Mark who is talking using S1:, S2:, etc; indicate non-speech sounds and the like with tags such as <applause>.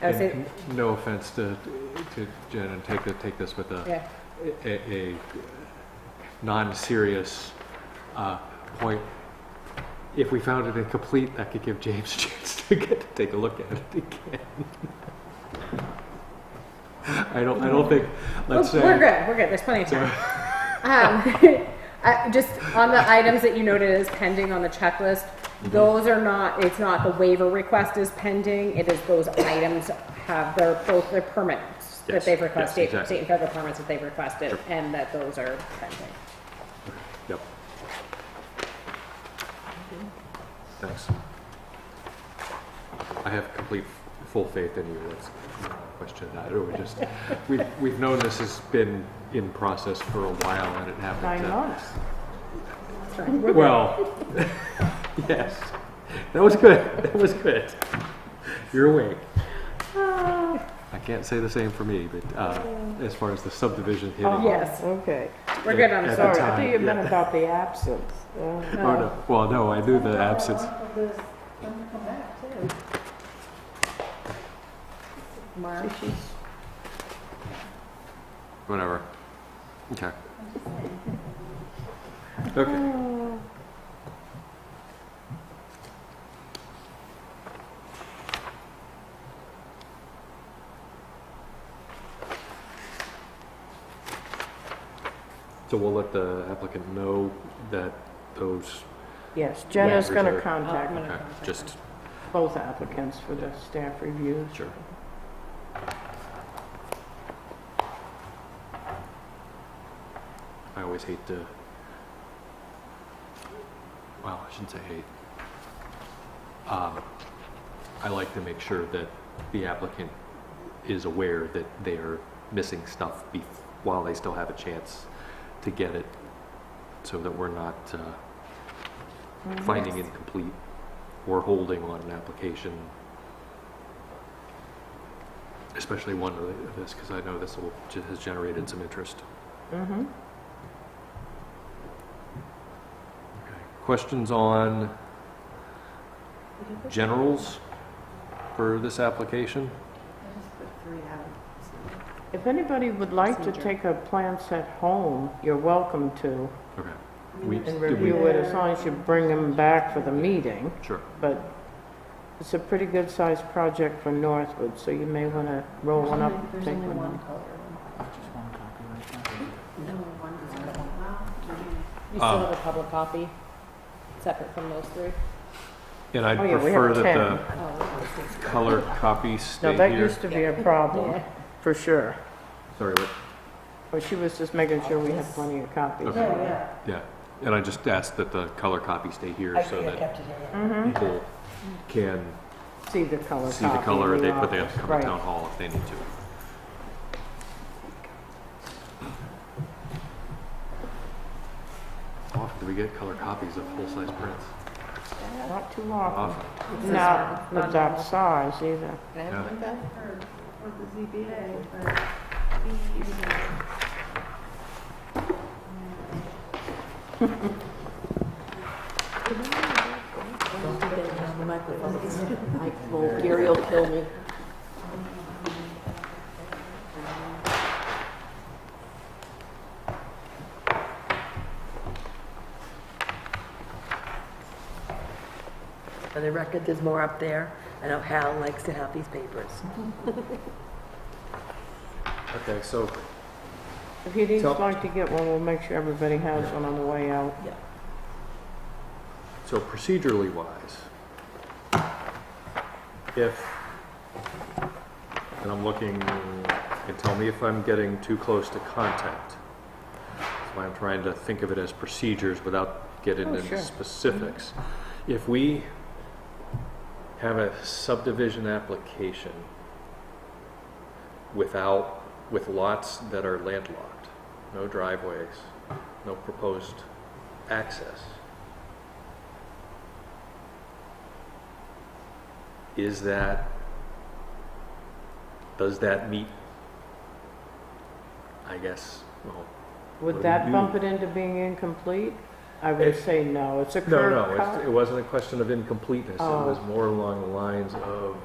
S1: I would say,
S2: And n- No offense to, to Jen, and take, the- take this with a,
S1: yeah,
S2: a, a non-serious, uh, point. If we found it incomplete, that could give James <laughs> a chance to get, to take a look at it again. <laughs> I don't, I don't think,
S1: we're
S2: let's say.
S1: Oh, we're good, we're good, there's plenty of time. Um, <laughs> I- Just on the items that you noted as pending on the checklist,
S2: Mm-hmm.
S1: those are not, it's not the waiver request is pending, it is those items have their, both their permits that
S2: Yes,
S1: they've
S2: yes,
S1: requested, state
S2: exactly.
S1: and federal permits that they've requested, and that those are pending.
S2: Yep. Thanks. I have complete, full faith in you, let's not question that, or we just, we've, we've known this has been in process for a while and it happened to.
S1: That's right. We're good.
S2: Well, <laughs> yes, that was good, that was good. You're awake. I can't say the same for me, but, uh, as far as the subdivision hitting.
S1: Yes.
S3: Uh-huh. Okay.
S1: We're good on
S2: at
S1: the
S2: the
S1: sorry.
S3: Sorry, I
S2: time,
S3: think it meant
S2: yeah.
S3: about the absence. Uh,
S2: Oh, no, well, no, I knew the absence.
S1: Mark.
S2: Whatever. Okay. Okay.
S3: Oh,
S2: So we'll let the applicant know that those,
S3: Yes, Jenna's
S2: Yeah.
S3: going to
S2: Reserve.
S1: Oh,
S3: contact
S1: I'm
S2: okay,
S1: gonna-
S2: just,
S3: both applicants for the staff reviews.
S2: sure. I always hate to, well, I shouldn't say hate. Um, I like to make sure that the applicant is aware that they're missing stuff bef- while they still have a chance to get it, so that we're not, uh,
S3: Mm-hmm.
S2: finding incomplete or holding on an application, especially one of this, because I know this will, has generated some interest.
S3: Mm-hmm.
S2: Okay. Questions on generals for this application?
S3: If anybody would like to
S1: Procedure.
S3: take a plan set home, you're welcome to
S2: Okay, we,
S3: and
S2: did we,
S3: review it as long as you bring them back for the meeting.
S2: sure,
S3: But it's a pretty good-sized project for Northwood, so you may want to roll one up.
S4: There's
S3: take
S4: only
S3: one
S4: one
S3: home.
S4: color. Only one is color.
S1: You
S2: Um,
S1: still
S3: Uh.
S1: have a public copy, separate from those three?
S2: and I'd
S3: Oh, yeah, we
S2: prefer
S3: have
S2: that
S1: Oh,
S2: the color copy stay
S3: No, that
S2: here.
S3: used to be a problem,
S1: yeah.
S3: for sure.
S2: Sorry, what,
S3: Well, she was just making sure we had plenty of copies.
S2: Okay.
S4: Yeah, yeah.
S2: yeah, and I just asked that the color copy stay here
S4: I
S2: so
S4: think I
S2: that
S4: kept it here.
S3: Mm-hmm.
S2: people can
S3: See the color
S2: see the
S3: copy
S2: color,
S3: in
S2: they put the
S3: office,
S2: come
S3: right.
S2: to town hall if they need to. How Often do we get color copies of full-size prints?
S3: Not too often.
S2: Often.
S3: Not
S1: Not
S3: of that size either.
S2: Yeah.
S4: Gary will kill me. For the record, there's more up there. I know Hal likes to have these papers.
S2: Okay, so
S3: If you'd each
S2: So-
S3: like to get one, we'll make sure everybody has one on the way out.
S2: So procedurally wise, if, and I'm looking, and tell me if I'm getting too close to content. That's why I'm trying to think of it as procedures without getting
S3: Oh,
S2: into
S3: sure.
S2: specifics. If we have a subdivision application without, with lots that are landlocked, no driveways, no proposed access, is that, does that meet, I guess, well, What do
S3: Would
S2: you
S3: that
S2: do?
S3: bump it into being incomplete? I would
S2: It-
S3: say no, it's a
S2: no,
S3: curved
S2: no, it's-
S3: cut.
S2: it wasn't a question of incompleteness. It
S3: Oh.
S2: was more along the lines of,